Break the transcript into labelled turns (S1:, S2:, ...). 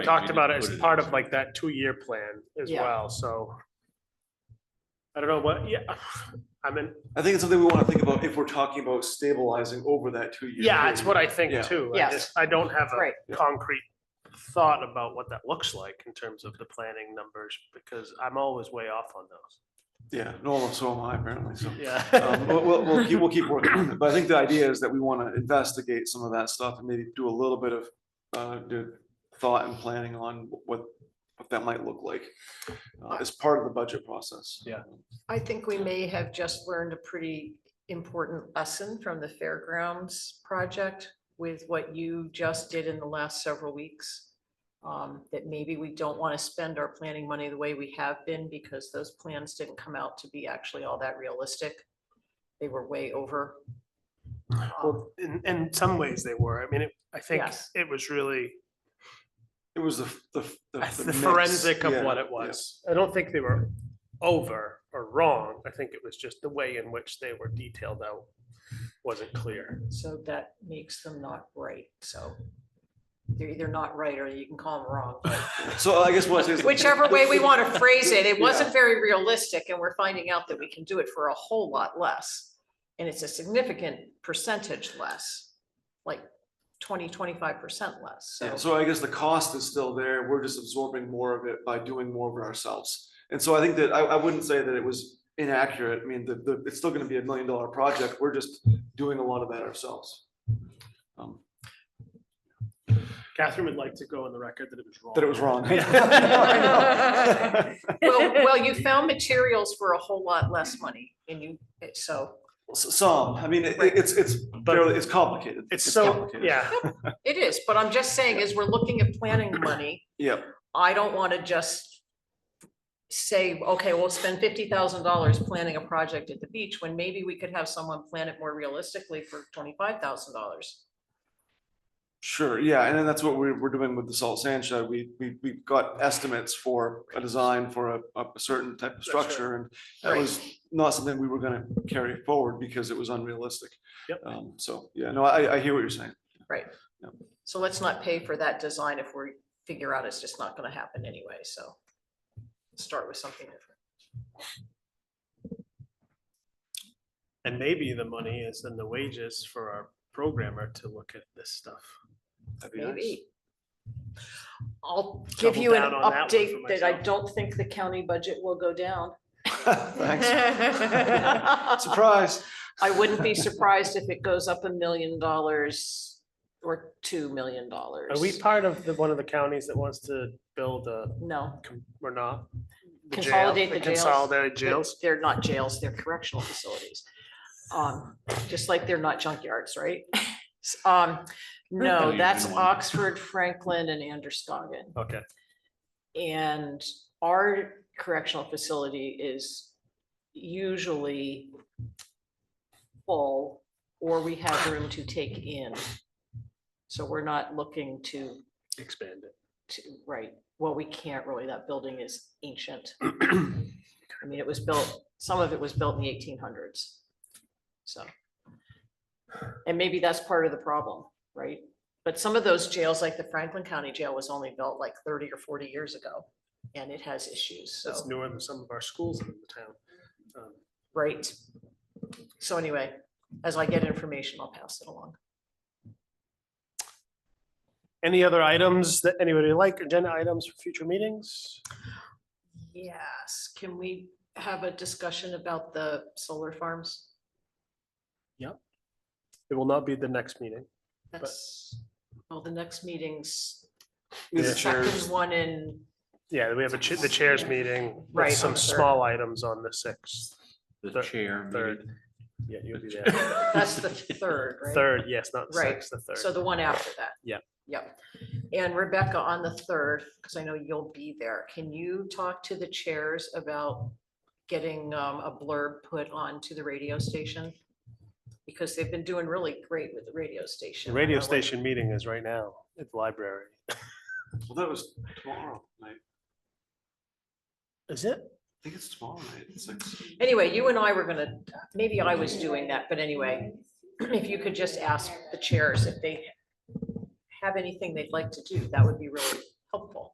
S1: we
S2: talked
S1: didn't
S2: about it
S1: put
S2: as
S1: in
S2: part
S1: this.
S2: of like that two-year plan as
S3: Yeah.
S2: well, so. I don't know what, yeah, I mean,
S4: I think it's something we wanna think about if we're talking about stabilizing over that two years.
S2: yeah, it's what I think
S4: Yeah.
S2: too. I
S3: Yes.
S2: just, I don't have
S3: Right.
S2: a concrete thought about what that looks like in terms of the planning numbers, because I'm always way off on those.
S4: Yeah, no, so am I apparently, so. Um,
S2: Yeah.
S4: We'll, we'll, we'll keep, we'll keep working, on it. but I think the idea is that we wanna investigate some of that stuff and maybe do a little bit of, uh, do thought and planning on what, what that might look like. uh, as part of the budget process.
S2: Yeah.
S3: I think we may have just learned a pretty important lesson from the fairgrounds project with what you just did in the last several weeks. Um, that maybe we don't want to spend our planning money the way we have been because those plans didn't come out to be actually all that realistic. They were way over. Um,
S2: Well, in, in some ways they were. I mean, it- I think
S3: Yes.
S2: it was really
S4: It was the, f- the. f-
S2: the
S4: mix,
S2: forensic of
S4: yeah,
S2: what it
S4: yeah.
S2: was. I don't think they were over or wrong. I think it was just the way in which they were detailed out wasn't clear.
S3: So that makes them not right, so. They're either not right or you can call them wrong.
S4: So I guess what I say is.
S3: Whichever way we want to phrase it, it
S4: Yeah.
S3: wasn't very realistic and we're finding out that we can do it for a whole lot less. And it's a significant percentage less, like 20, 25 percent less.
S4: Yeah,
S3: So
S4: so I guess the cost is still there. We're just absorbing more of it by doing more of it ourselves. And so I think that I, I wouldn't say that it was inaccurate. I mean, the, the, it's still gonna be a million dollar project. We're just doing a lot of that ourselves. Um,
S2: Catherine would like to go on the record that it was wrong.
S4: That it was wrong.
S2: Yeah.
S3: Well, well, you found materials for a whole lot less money and you, so
S4: S- Some, I mean, it, it's, it's, fairly- it's complicated.
S2: It's so,
S4: complicated.
S2: yeah,
S3: it is, but I'm just saying as we're looking at planning money,
S4: Yeah,
S3: I don't want to just say, okay, we'll spend fifty thousand dollars planning a project at the beach, when maybe we could have someone plan it more realistically for twenty-five thousand dollars.
S4: Sure, yeah, and then that's what we're, we're doing with the salt sand shed. We, we, we got estimates for a design for a, a certain type of
S2: That's right.
S4: structure and that was not something we were gonna carry forward because it was unrealistic.
S2: Yep.
S4: Um, so, yeah, no, I, I hear what you're saying.
S3: So let's not pay for that design if we figure out it's just not gonna happen anyway, so. Start with something different.
S2: and maybe the money is in the wages for our programmer to look at this stuff.
S4: That'd be nice.
S3: Maybe. I'll give
S2: Double
S3: you an
S2: down on that one for
S3: update that I
S2: myself.
S3: don't think the county budget will go down.
S4: Thanks. Surprise.
S3: I wouldn't be surprised if it goes up a million dollars or two million dollars.
S2: Are we part of the, one of the counties that wants to build a,
S3: No,
S2: com- or not? The jail-
S3: Consolidate the jails.
S2: Consolidated
S3: they-
S2: jails?
S3: they're not jails, they're correctional facilities. Um, just like they're not junkyards, right? S- Um, no,
S2: Oh,
S1: Franklin's
S3: that's
S1: in one.
S3: Oxford, Franklin and Anderson.
S2: Okay,
S3: And our correctional facility is usually full, or we have room to take in. So we're not looking to
S2: expand it.
S3: to, right, well, we can't really, that building is ancient. I mean, it was built, some of it was built in the eighteen hundreds. So. And maybe that's part of the problem, right? But some of those jails, like the Franklin County Jail was only built like thirty or forty years ago. And it has issues,
S2: It's
S3: so,
S2: newer than some of our schools in the town. Um,
S3: right? So anyway, as I get information, I'll pass it along.
S2: Any other items that anybody would like, agenda items for future meetings?
S3: Yes, can we have a discussion about the solar farms?
S2: It will not be the next meeting.
S3: That's, well, the next meeting's
S4: These
S2: Yeah.
S4: are
S3: second
S4: chairs.
S3: one in,
S2: Yeah, we have a cha- the chairs meeting, with
S3: Right, on
S2: some
S3: the third.
S2: small items on the sixth,
S1: The
S2: Third-
S1: chair.
S2: third.
S1: meeting.
S2: Yeah, you'll be
S1: The
S2: there.
S1: chair.
S3: that's the third, right?
S2: Third, yes, not the
S3: Right,
S2: sixth, the third.
S3: So the one after that.
S2: Yeah.
S3: Yep. And Rebecca, on the third, because I know you'll be there, can you talk to the chairs about getting um, a blurb put onto the radio station? Because they've been doing really great with the radio
S2: The
S3: station.
S2: radio
S3: I don't know what-
S2: station meeting is right now at the library.
S4: Well, that was tomorrow night. I
S2: Is it?
S4: think it's tomorrow night. It's like,
S3: Anyway, you and I were gonna, maybe I was doing that, but anyway, if you could just ask the chairs if they have anything they'd like to do, that would be really helpful.